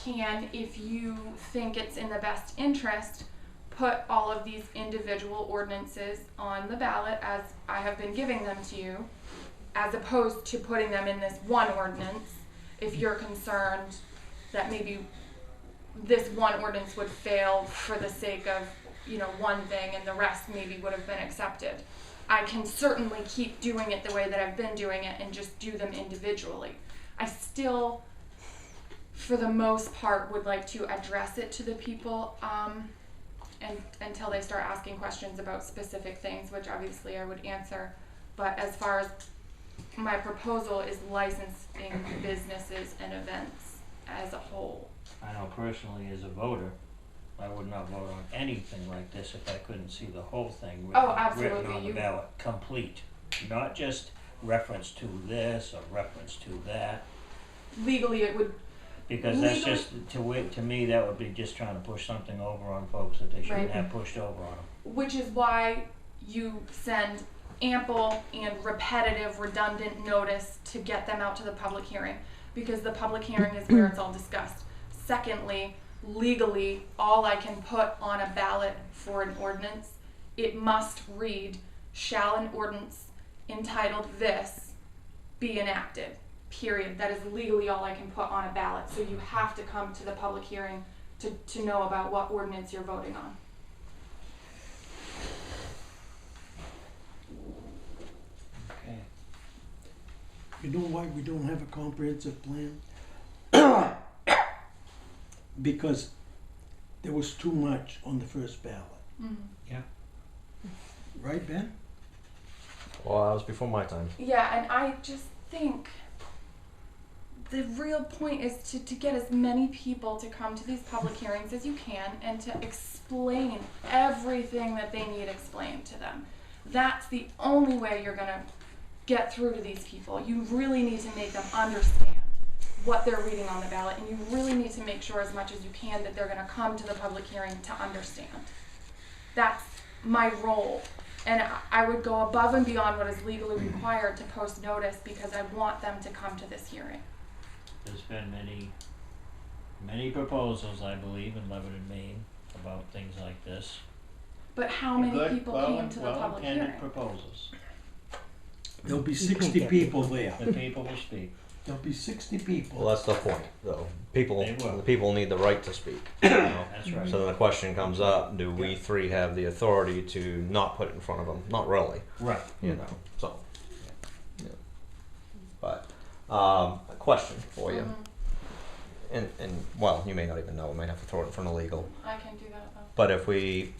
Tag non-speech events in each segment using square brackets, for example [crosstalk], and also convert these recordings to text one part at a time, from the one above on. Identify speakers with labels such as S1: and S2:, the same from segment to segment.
S1: can, if you think it's in the best interest, put all of these individual ordinances on the ballot as I have been giving them to you, as opposed to putting them in this one ordinance, if you're concerned that maybe this one ordinance would fail for the sake of, you know, one thing and the rest maybe would have been accepted. I can certainly keep doing it the way that I've been doing it and just do them individually. I still, for the most part, would like to address it to the people um, and until they start asking questions about specific things, which obviously I would answer. But as far as my proposal is licensing businesses and events as a whole.
S2: I know personally as a voter, I would not vote on anything like this if I couldn't see the whole thing written,
S1: Oh, absolutely,
S2: written on the
S1: you-
S2: ballot, complete. Not just reference to this or reference to that,
S1: Legally, it would
S2: because that's just, to wit, to me, that would be just trying to push something over on folks that they
S1: Right.
S2: shouldn't have pushed over on them.
S1: which is why you send ample and repetitive, redundant notice to get them out to the public hearing, because the public hearing is where it's all discussed. Secondly, legally, all I can put on a ballot for an ordinance, it must read, shall an ordinance entitled this be enacted, period. That is legally all I can put on a ballot, so you have to come to the public hearing to, to know about what ordinance you're voting on.
S2: Okay.
S3: You know why we don't have a comprehensive plan? [coughs] Because there was too much on the first ballot, right, Ben?
S4: Well, that was before my time.
S1: Yeah, and I just think the real point is to, to get as many people to come to these public hearings as you can and to explain everything that they need explained to them. That's the only way you're going to get through to these people. You really need to make them understand what they're reading on the ballot, and you really need to make sure as much as you can that they're going to come to the public hearing to understand that's my role. And I- I would go above and beyond what is legally required to post notice because I want them to come to this hearing.
S2: There's been many, many proposals, I believe, in Lebanon, Maine, about things like this.
S1: But how many
S2: Good,
S1: people
S2: well-
S1: came to the public
S2: Well-intended
S1: hearing?
S2: proposals.
S3: There'll be
S5: You can't
S3: sixty
S5: get
S3: people there.
S2: The people will
S4: [laughs]
S2: speak.
S3: There'll be sixty
S4: Well,
S3: people.
S4: that's the point, though. People,
S2: They will.
S4: the people need the right to speak. You know?
S2: That's right.
S4: So then the question comes up: Do we three have the authority to not put it in front of them? Not really,
S2: Right.
S4: you know. So, yeah. but um, a question for you,
S1: Mhm.
S4: and and well, you may not even know. We might have to throw it in front of legal.
S1: I can do that though.
S4: But if we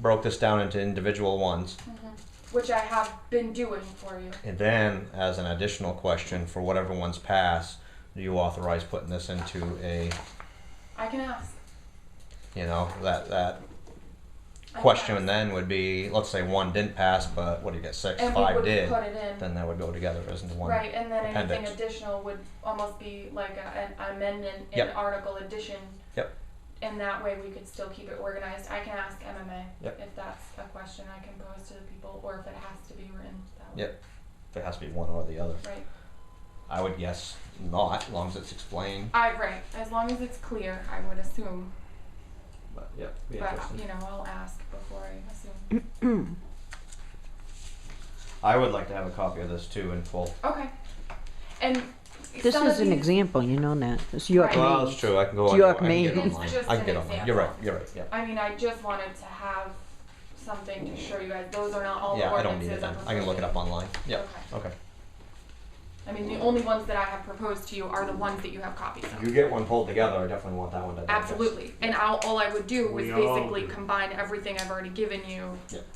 S4: broke this down into individual ones,
S1: Mhm.
S2: Mm-hmm.
S1: Which I have been doing for you.
S4: and then as an additional question for whatever ones pass, do you authorize putting this into a
S1: I can ask.
S4: you know that that
S1: I can
S4: question
S1: ask.
S4: then would be let's say one didn't pass but what do you get six
S1: And we
S4: five
S1: would
S4: did
S1: put it in,
S4: then that would go together as into one
S1: right, and then anything
S4: appendix.
S1: additional would almost be like a- an amendment, an
S4: Yep.
S1: article addition.
S4: Yep.
S1: And that way we could still keep it organized. I can ask MMA.
S4: Yep.
S1: If that's a question I can pose to the people, or if it has to be written that way.
S4: Yep. if it has to be one or the other
S1: Right.
S4: i would guess not as long as it's explained
S1: I right. As long as it's clear, I would assume.
S4: but yeah be
S1: But
S4: interesting.
S1: you know, I'll ask before I assume.
S4: i would like to have a copy of this too in full
S1: Okay. And
S5: This
S1: some
S5: is
S1: of
S5: an
S1: these-
S5: example, you know that. It's York
S1: Right.
S4: well
S5: Maine.
S4: that's true i can go on
S5: York,
S4: I can get
S5: Maine.
S4: online
S1: It's just
S4: i can get
S1: an
S4: online you're right
S1: example.
S4: you're right yeah
S1: I mean, I just wanted to have something to show you guys. Those are not all
S4: yeah
S1: the
S4: i
S1: ordinances
S4: don't need it then
S1: I'm
S4: i can look it
S1: proposing.
S4: up online yeah
S1: Okay.
S4: okay
S1: I mean, the only ones that I have proposed to you are the ones that you have copies of.
S4: you get one pulled together i definitely want that one to digest.
S1: Absolutely. And I'll, all I would do was
S2: We all
S1: basically
S2: do.
S1: combine everything I've already given you
S4: Yep.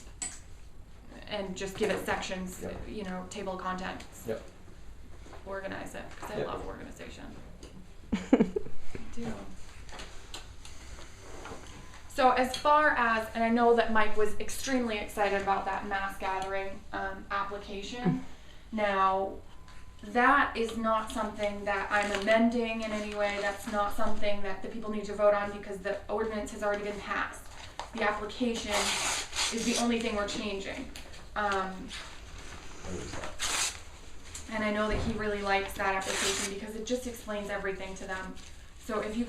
S1: and just give it sections,
S4: Yep.
S1: you know, table of contents.
S4: Yep.
S1: Organize it, because I
S4: Yep.
S1: love organization. I do. So as far as, and I know that Mike was extremely excited about that mass gathering um, application. Now, that is not something that I'm amending in any way. That's not something that the people need to vote on because the ordinance has already been passed. The application is the only thing we're changing. Um,
S4: What is that?
S1: and I know that he really likes that application because it just explains everything to them. So if you guys